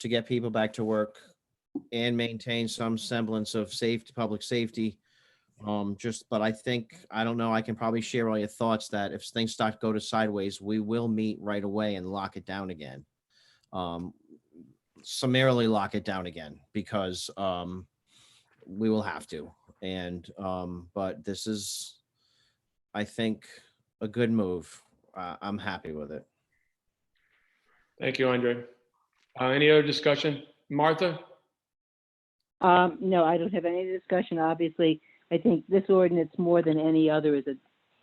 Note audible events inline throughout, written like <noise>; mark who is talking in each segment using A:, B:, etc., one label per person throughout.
A: to get people back to work and maintain some semblance of safety, public safety. Um, just, but I think, I don't know, I can probably share all your thoughts that if things start to go to sideways, we will meet right away and lock it down again. Um, summarily lock it down again because, um, we will have to. And, um, but this is, I think, a good move. Uh, I'm happy with it.
B: Thank you, Andre. Uh, Any other discussion? Martha?
C: Um, no, I don't have any discussion, obviously. I think this ordinance more than any other is a,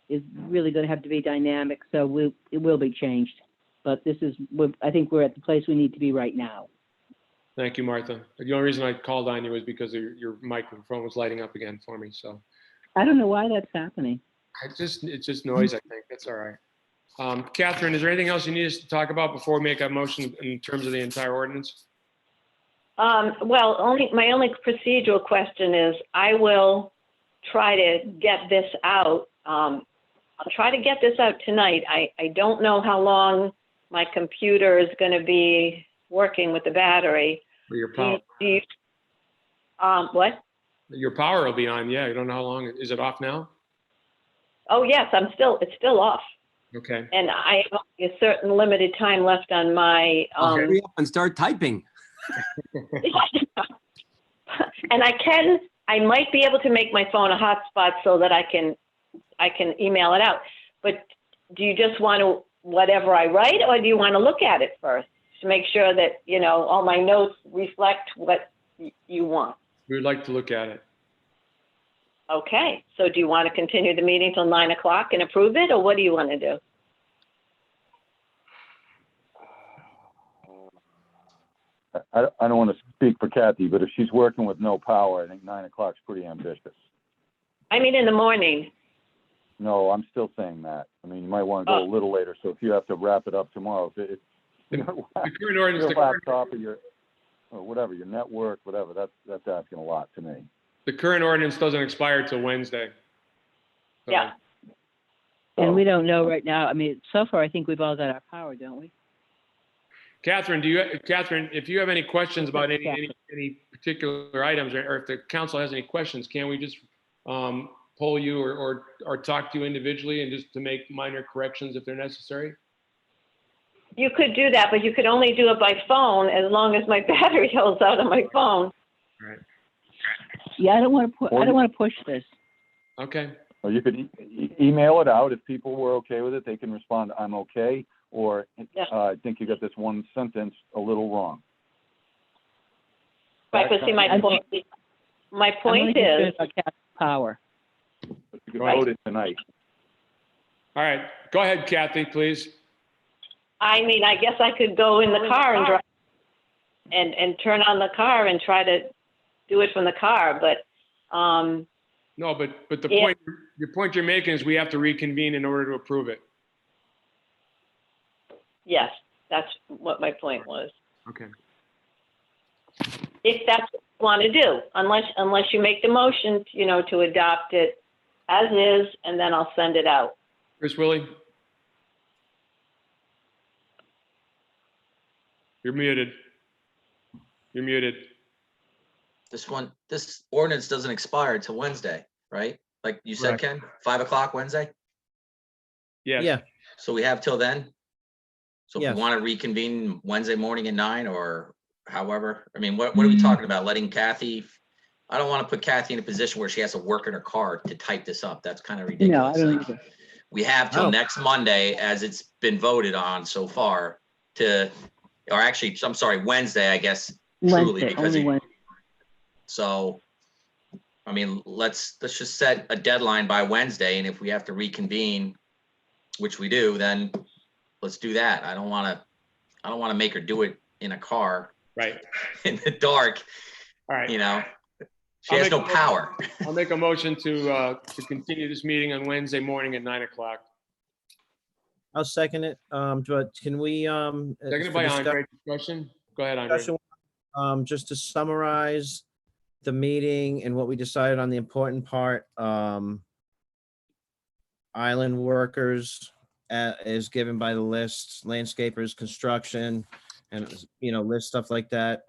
C: is really gonna have to be dynamic, so we, it will be changed. But this is, we're- I think we're at the place we need to be right now.
B: Thank you, Martha. The only reason I called on you was because your, your microphone was lighting up again for me, so.
C: I don't know why that's happening.
B: I just, it's just noise, I think. That's all right. Um, Catherine, is there anything else you need us to talk about before we make a motion in terms of the entire ordinance?
D: Um, well, only, my only procedural question is, I will try to get this out. Um, I'll try to get this out tonight. I, I don't know how long my computer is gonna be working with the battery.
B: Or your power,
D: Do you- Um, what?
B: your power will be on, yeah. You don't know how long. Is it off now?
D: Oh, yes, I'm still, it's still off.
B: Okay.
D: And I have only a certain limited time left on my, um,
E: Hurry up and start typing.
D: And I can, I might be able to make my phone a hotspot so that I can, I can email it out. But do you just want to, whatever I write, or do you want to look at it first? To make sure that, you know, all my notes reflect what y- you want.
B: We would like to look at it.
D: Okay, so do you want to continue the meeting till nine o'clock and approve it, or what do you want to do?
F: I, I don't want to speak for Kathy, but if she's working with no power, I think nine o'clock's pretty ambitious.
D: I mean, in the morning.
F: No, I'm still saying that. I mean, you might want to go a little later, so if you have to wrap it up tomorrow, if it, if
B: The current
F: your
B: ordinance, the current-
F: laptop or your, or whatever, your network, whatever, that's, that's asking a lot to me.
B: the current ordinance doesn't expire till Wednesday. So,
D: Yeah.
C: And
G: Oh.
C: we don't know right now, I mean, so far, I think we've all got our power, don't we?
B: Catherine, do you, Catherine, if you have any questions about any, any,
C: Catherine.
B: any particular items, or or if the council has any questions, can we just um, poll you or, or, or talk to you individually and just to make minor corrections if they're necessary?
D: You could do that, but you could only do it by phone as long as my <laughs> battery holds out on my phone.
C: Yeah, I don't wanna pu, I don't wanna push this.
B: Okay,
F: Or you could e- e- email it out. If people were okay with it, they can respond, I'm okay, or,
D: Yeah.
F: uh, I think you got this one sentence a little wrong.
D: Right, but see, my
C: I'm-
D: point, my
C: I'm only
D: point is.
C: concerned about Cat's Power.
F: You could vote it tonight.
B: all right, go ahead, Kathy, please.
D: I mean, I guess I could go in the car and drive and, and turn on the car and try to do it from the car, but, um,
B: No, but, but the
D: Yeah.
B: point, the point you're making is we have to reconvene in order to approve it.
D: yes, that's what my point was.
B: Okay.
D: If that's what you want to do, unless, unless you make the motion, you know, to adopt it as is, and then I'll send it out.
B: Chris Willie? You're muted. You're muted.
G: This one, this ordinance doesn't expire till Wednesday, right? Like you said,
B: Correct.
G: Ken, five o'clock Wednesday?
B: Yes.
A: Yeah,
G: So we have till then? So if
A: Yes.
G: we want to reconvene Wednesday morning at nine or however, I mean, what, what are we talking about? Letting Kathy? I don't want to put Kathy in a position where she has to work in her car to type this up. That's kind of
C: No, I
G: ridiculous.
C: don't
G: Uh,
C: either.
G: We have till
A: No.
G: next Monday, as it's been voted on so far to, or actually, I'm sorry, Wednesday, I guess, Truly,
C: Wednesday,
G: because
C: only
G: you-
C: Wednesday.
G: So, I mean, let's, let's just set a deadline by Wednesday, and if we have to reconvene, which we do, then let's do that. I don't want to, I don't want to make her do it in a car <laughs>
B: Right,
G: in the dark,
B: all right.
G: you know? She
B: I'll
G: has
B: make
G: no
B: a motion.
G: power.
B: I'll make a motion to, uh, to continue this meeting on Wednesday morning at nine o'clock.
A: I'll second it. Um, but can we, um? uh,
B: Seconded
A: for
B: by
A: discuss-
B: Andre. Discussion? Go ahead, Andre.
A: discussion, Um, just to summarize the meeting and what we decided on the important part, um. Island workers, uh, is given by the list, landscapers, construction, and, you know, list stuff like that.